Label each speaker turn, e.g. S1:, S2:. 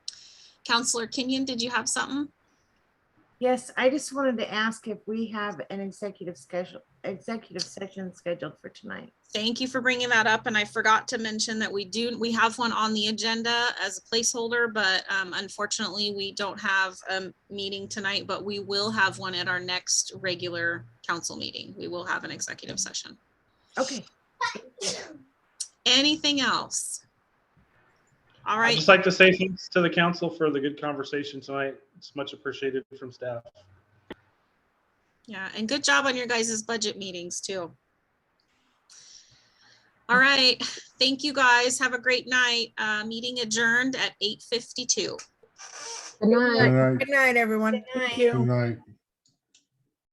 S1: Counselor Kenyon, did you have something?
S2: Yes, I just wanted to ask if we have an executive schedule, executive session scheduled for tonight.
S1: Thank you for bringing that up, and I forgot to mention that we do, we have one on the agenda as a placeholder, but um, unfortunately, we don't have a meeting tonight, but we will have one at our next regular council meeting. We will have an executive session.
S2: Okay,
S1: Anything else? All
S3: I'd
S1: right,
S3: just like to say thanks to the council for the good conversation tonight. It's much appreciated from staff.
S1: yeah, and good job on your guys' budget meetings too. All right, thank you guys. Have a great night. Uh, Meeting adjourned at eight fifty-two.
S4: Good night.
S5: Good night.
S6: Good night, everyone.
S5: Good night.